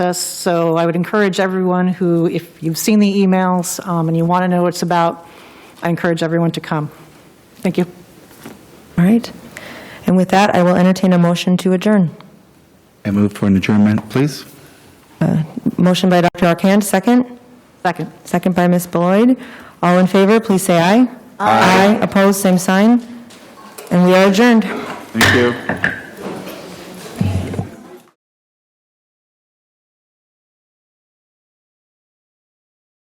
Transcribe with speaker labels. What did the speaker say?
Speaker 1: us. So I would encourage everyone who, if you've seen the emails um, and you want to know what it's about, I encourage everyone to come. Thank you.
Speaker 2: All right. And with that, I will entertain a motion to adjourn.
Speaker 3: I move for an adjournment, please.
Speaker 2: Motion by Dr. Arcand, second.
Speaker 1: Second.
Speaker 2: Second by Ms. Beloit. All in favor, please say aye. Aye. Opposed, same sign. And we are adjourned.
Speaker 3: Thank you.